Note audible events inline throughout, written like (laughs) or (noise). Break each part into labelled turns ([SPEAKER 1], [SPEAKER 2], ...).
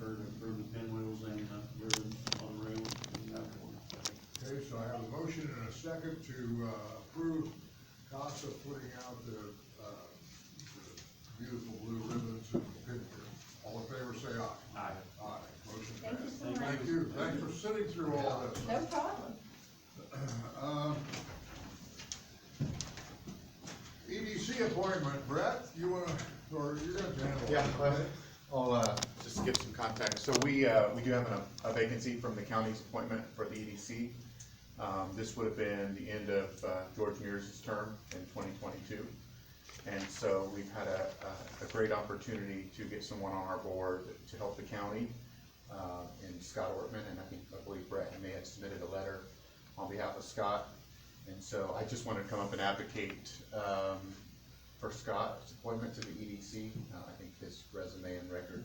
[SPEAKER 1] her to approve the pinwheels and the ribbons on the rail.
[SPEAKER 2] Okay, so I have a motion and a second to, uh, approve CASA putting out the, uh, the beautiful blue ribbons and pinwheels. All in favor, say aye.
[SPEAKER 1] Aye.
[SPEAKER 2] Aye, motion
[SPEAKER 3] Thank you
[SPEAKER 2] passed.
[SPEAKER 3] so much.
[SPEAKER 2] Thank you, thanks for sitting through all this.
[SPEAKER 3] No problem.
[SPEAKER 2] Um, EDC E appointment, Brett, you wanna, or you're gonna handle it?
[SPEAKER 4] Yeah, well,
[SPEAKER 2] okay?
[SPEAKER 4] I'll, uh, just give some context. So we, uh, we do have an- a vacancy from the county's appointment for the EDC. Um, this would have been the end of, uh, George Mears' term in twenty twenty-two. And so we've had a, a, a great opportunity to get someone on our board to help the county, uh, and Scott Ortman, and I think, I believe Brett, may have submitted a letter on behalf of Scott. And so I just wanted to come up and advocate, um, for Scott's appointment to the EDC. Uh, I think his resume and record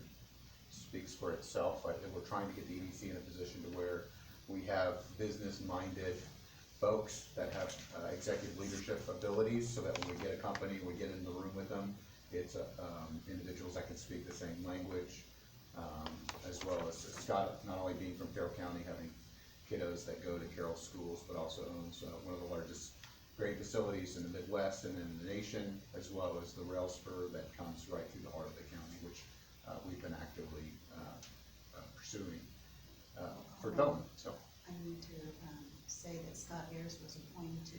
[SPEAKER 4] speaks for itself. I think we're trying to get the EDC in a position to where we have business-minded folks that have uh, executive leadership abilities, so that when we get a company, we get in the room with them. It's uh, um, individuals that can speak the same language, um, as well as Scott, not only being from Carroll County, having kiddos that go to Carroll schools, but also owns uh, one of the largest great facilities in the Midwest and in the nation, as well as the rail spur that comes right through the heart of the county, which uh, we've been actively uh, uh, pursuing uh, for development, so.
[SPEAKER 5] I need to, um, say that Scott Ayers was appointed to,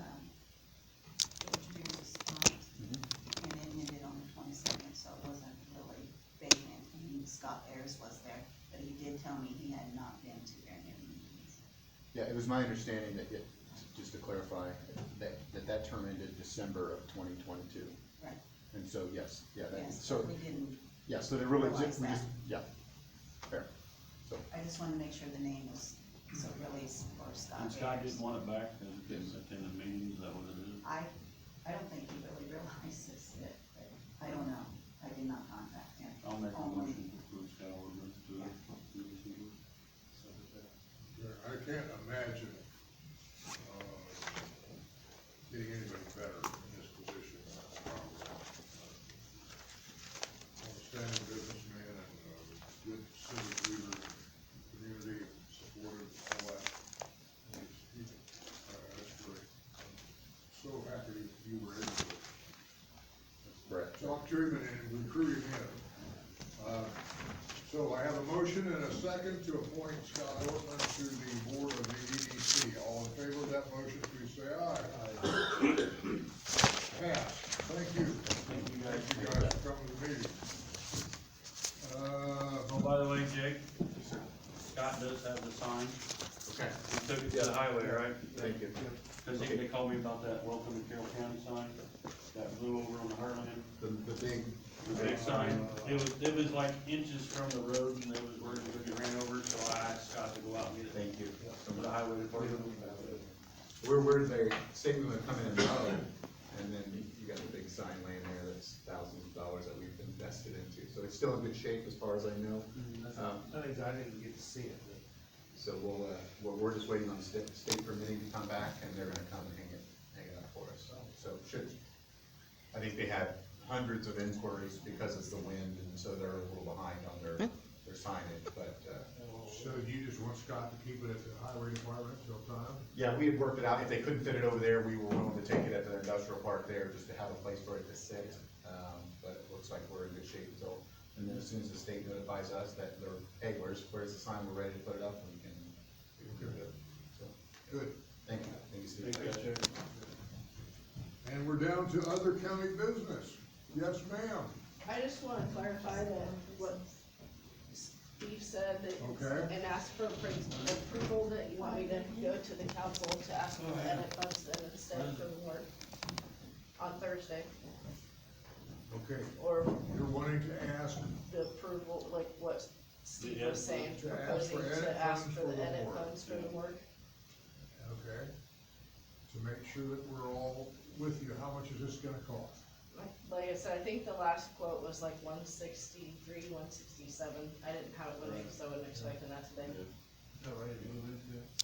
[SPEAKER 5] um, George Mears' term,
[SPEAKER 1] Mm-hmm.
[SPEAKER 5] and it ended on the twenty-second, so it wasn't really vacant, I mean, Scott Ayers was there, but he did tell me he had not been to very many meetings.
[SPEAKER 4] Yeah, it was my understanding that, it- just to clarify, that, that that term ended December of twenty twenty-two.
[SPEAKER 5] Right,
[SPEAKER 4] And so, yes, yeah,
[SPEAKER 1] Uh,
[SPEAKER 4] that,
[SPEAKER 5] yes,
[SPEAKER 4] so,
[SPEAKER 5] but we didn't,
[SPEAKER 4] yeah, so they really,
[SPEAKER 5] Realize
[SPEAKER 4] we just,
[SPEAKER 5] that.
[SPEAKER 4] yeah, fair. So,
[SPEAKER 5] I just wanna make sure the name was, so really, it's for Scott
[SPEAKER 1] And
[SPEAKER 5] Ayers.
[SPEAKER 1] Scott didn't want it back because he didn't attend the meetings, that was it. is?
[SPEAKER 5] I, I don't think he really (laughs) realizes that, but I don't know, I did not contact him.
[SPEAKER 1] I'll make a
[SPEAKER 5] Only-
[SPEAKER 1] motion to approve Scott Ortman to the EDC.
[SPEAKER 2] Yeah, I can't imagine, uh, getting anybody better in this position. Outstanding businessman and, uh, good civic leader, community supportive, all that. He's- he- uh, That's great. I'm So happy you were able to
[SPEAKER 4] Brett,
[SPEAKER 2] talk to him and recruit him in. Uh, So I have a motion and a second to appoint Scott Ortman to the board of the EDC. All in favor of that motion, please say aye. Pass. Thank you.
[SPEAKER 1] Thank you guys.
[SPEAKER 2] Thank you guys for coming to the Uh, meeting. Uh,
[SPEAKER 1] Oh, by the way, Jake, Scott does have the sign.
[SPEAKER 4] okay,
[SPEAKER 1] He took it to the highway, right?
[SPEAKER 4] thank you.
[SPEAKER 1] Cause they, they called me about that welcome to Carroll County sign that blew over on the Heartland.
[SPEAKER 4] The, the big,
[SPEAKER 1] The big sign, it was, it was like inches from the road and it was where it would be ran over, so I asked Scott to go out and get it.
[SPEAKER 6] Thank you.
[SPEAKER 1] From the highway department.
[SPEAKER 4] we're, we're there, saving them coming in, and then you- you got the big sign laying there that's thousands of dollars that we've invested into. So it's still in good shape as far as I know. Um,
[SPEAKER 6] That is, Mm, I didn't get to see it, but.
[SPEAKER 4] So we'll, uh, we're, we're just waiting on the state, state permitting to come back, and they're gonna come and hang it, hang it up for us, so, so it should. I think they had hundreds of inquiries because it's the wind, and so they're a little behind on their, their signage, but, uh,
[SPEAKER 2] so you just want Scott to keep it at the highway department till time?
[SPEAKER 4] yeah, we had worked it out, if they couldn't fit it over there, we were willing to take it at the industrial park there, just to have a place for it to sit. Um, but it looks like we're in good shape, so, and then as soon as the state notifies us that they're, hey, where's, where's the sign, we're ready to put it up, we can, we can do it, so,
[SPEAKER 2] Good.
[SPEAKER 4] thank you, thank you, Steve.
[SPEAKER 2] And we're down to other county business. Yes, ma'am.
[SPEAKER 7] I just wanna clarify then what Steve said that,
[SPEAKER 2] Okay.
[SPEAKER 7] and ask for appro- approval that you want me to go to the council to ask for edit funds then instead of for the warrant on Thursday,
[SPEAKER 2] Okay,
[SPEAKER 7] or
[SPEAKER 2] you're wanting to ask
[SPEAKER 7] the approval, like what Steve was saying,
[SPEAKER 2] To ask for
[SPEAKER 7] proposing
[SPEAKER 2] edit
[SPEAKER 7] to ask
[SPEAKER 2] funds
[SPEAKER 7] for
[SPEAKER 2] for
[SPEAKER 7] the
[SPEAKER 2] the
[SPEAKER 7] edit
[SPEAKER 2] warrant,
[SPEAKER 7] funds for the warrant.
[SPEAKER 2] Okay, to make sure that we're all with you, how much is this gonna cost?
[SPEAKER 7] Like I said, I think the last quote was like one sixty-three, one sixty-seven, I didn't have it with me, so I wasn't expecting that today.
[SPEAKER 6] No, I didn't move into it.